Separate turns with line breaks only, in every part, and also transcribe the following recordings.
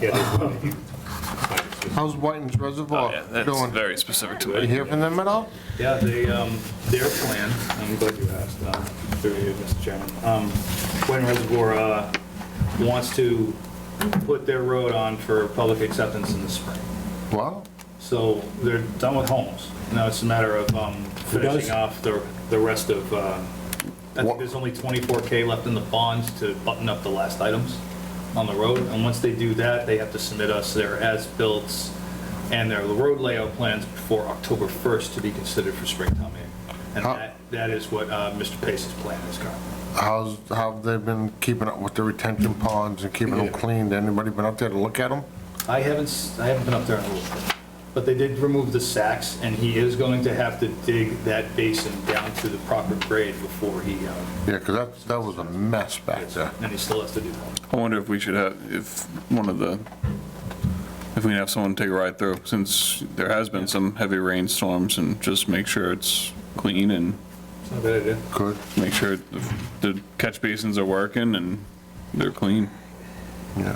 Yeah, there's one. You- minus this.
How's Whiten's Reservoir
Oh, Yeah, that's
doing?
very specific to
You
me.
hear from them at all?
Yeah, they, um, their plan, I'm glad you asked, uh, through you, Mr. Chairman. Um, Quinn Reservoir uh, wants to put their road on for public acceptance in the spring.
Wow,
So they're done with homes. Now it's a matter of um, finishing off the, the rest of, uh, I
What-
think there's only 24K left in the bonds to button up the last items on the road. And once they do that, they have to submit us their as-builts and their road layout plans before October 1st to be considered for springtime meeting. And
How-
that, that is what uh, Mr. Pace's plan is currently.
how's, how have they been keeping up with the retention ponds and keeping them clean? Anybody been up there to look at them?
I haven't, s- I haven't been up there in a little bit, but they did remove the sacks, and he is going to have to dig that basin down to the proper grade before he, uh,
Yeah, 'cause that, that was a mess back there.
and he still has to do that.
I wonder if we should have, if one of the, if we can have someone take a ride through, since there has been some heavy rainstorms, and just make sure it's clean and
It's not a bad idea.
Good,
make sure the- the catch basins are working and they're clean.
yeah.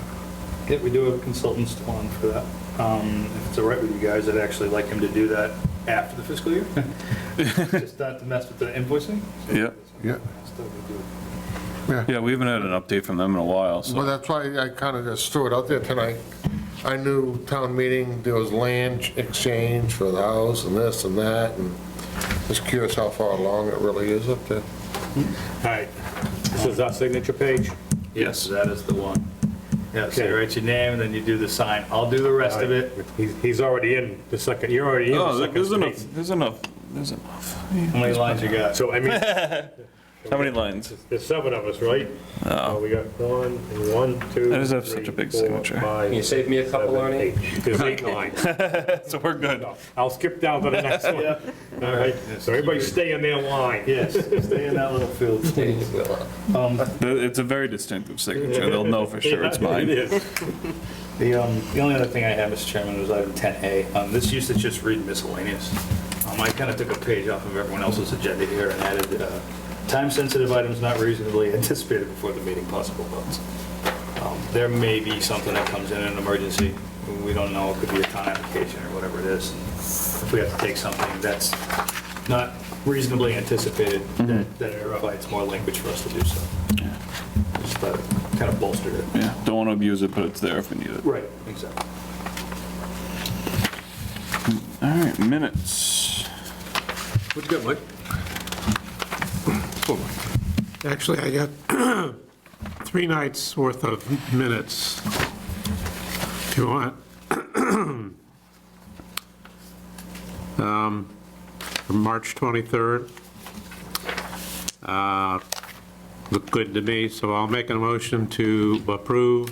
Yeah, we do have consultants to on for that. Um, If it's all right with you guys, I'd actually like him to do that after the fiscal year, just not to mess with the invoicing. So-
Yeah.
Yeah.
So we do it.
Yeah, we haven't had an update from them in a while,
Well,
so.
that's why I kind of just threw it out there tonight. I knew town meeting, there was land exchange for the house and this and that, and just curious how far along it really is up there.
All right, this is our signature page.
Yes, that is the one. Yeah, so
Okay.
you write your name, and then you do the sign. I'll do the rest of it.
He's- He's already in the second, you're already in
Oh,
the
there- there's
second
enough,
space.
there's enough, there's enough.
How many lines you got?
So I mean,
How many lines?
there's seven of us, right? Oh. We got one, and one, two,
I just have such a big
three, four,
signature.
five,
Can you save me a couple,
seven,
Arnie?
eight. There's eight lines.
So we're good.
I'll skip down to the next one.
Yeah.
All right, so everybody stay in their line.
Yes, stay in that little field.
The- It's a very distinctive signature. They'll know for sure it's mine.
It is.
The, um, the only other thing I have, Mr. Chairman, was item 10A. Um, this used to just read miscellaneous. Um, I kind of took a page off of everyone else's agenda here and added, uh, time-sensitive items not reasonably anticipated before the meeting, possible votes. Um, There may be something that comes in an emergency. We don't know. It could be a town application or whatever it is. If we have to take something that's not reasonably anticipated, that that provides more language for us to do so. Just thought it kind of bolstered it.
Yeah, don't want to abuse it, but it's there if we need it.
Right. Exactly.
All right, minutes.
What you got, Mike?
Actually, I got three nights' worth of minutes, if you want. Um, From March 23rd. Uh, Look good to me, so I'll make a motion to approve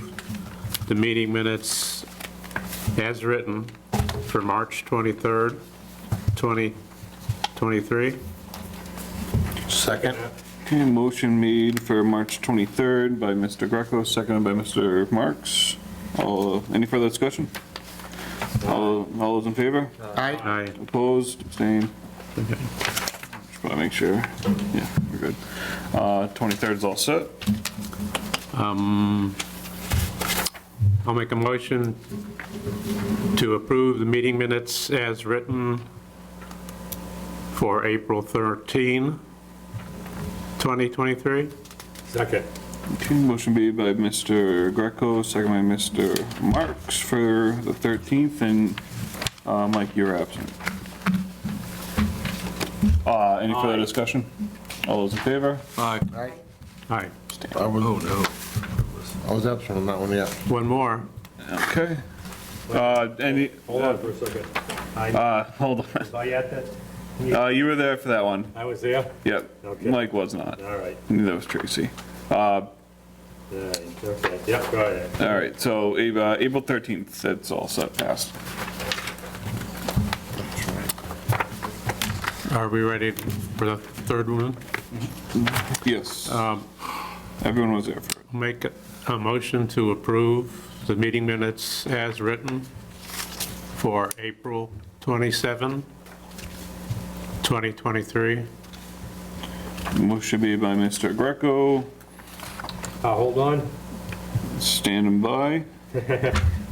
the meeting minutes as written for March 23rd, 2023.
Second?
Okay, motion made for March 23rd by Mr. Greco, seconded by Mr. Marks. All, any further discussion? All, all those in favor?
Aye.
Aye.
Opposed, abstained? Just want to make sure. Yeah, we're good. Uh, 23rd is all set.
I'll make a motion to approve the meeting minutes as written for April 13, 2023.
Second.
Okay, motion made by Mr. Greco, second by Mr. Marks for the 13th, and, uh, Mike, you're absent. Uh, any further discussion? All those in favor?
Aye.
Aye.
I was, oh, no. I was absent on that one, yeah.
One more.
Okay. Uh, any,
Hold on for a second.
uh, hold on.
Was I at that?
Uh, you were there for that one.
I was there?
Yep.
Okay.
Mike was not.
All right,
Neither was Tracy.
all right, okay, yeah, go ahead.
All right, so uh, April 13th, that's all set past.
Are we ready for the third one?
Yes. Everyone was there for it.
Make a motion to approve the meeting minutes as written for April 27, 2023.
Motion made by Mr. Greco,
Uh, hold on.
standing by.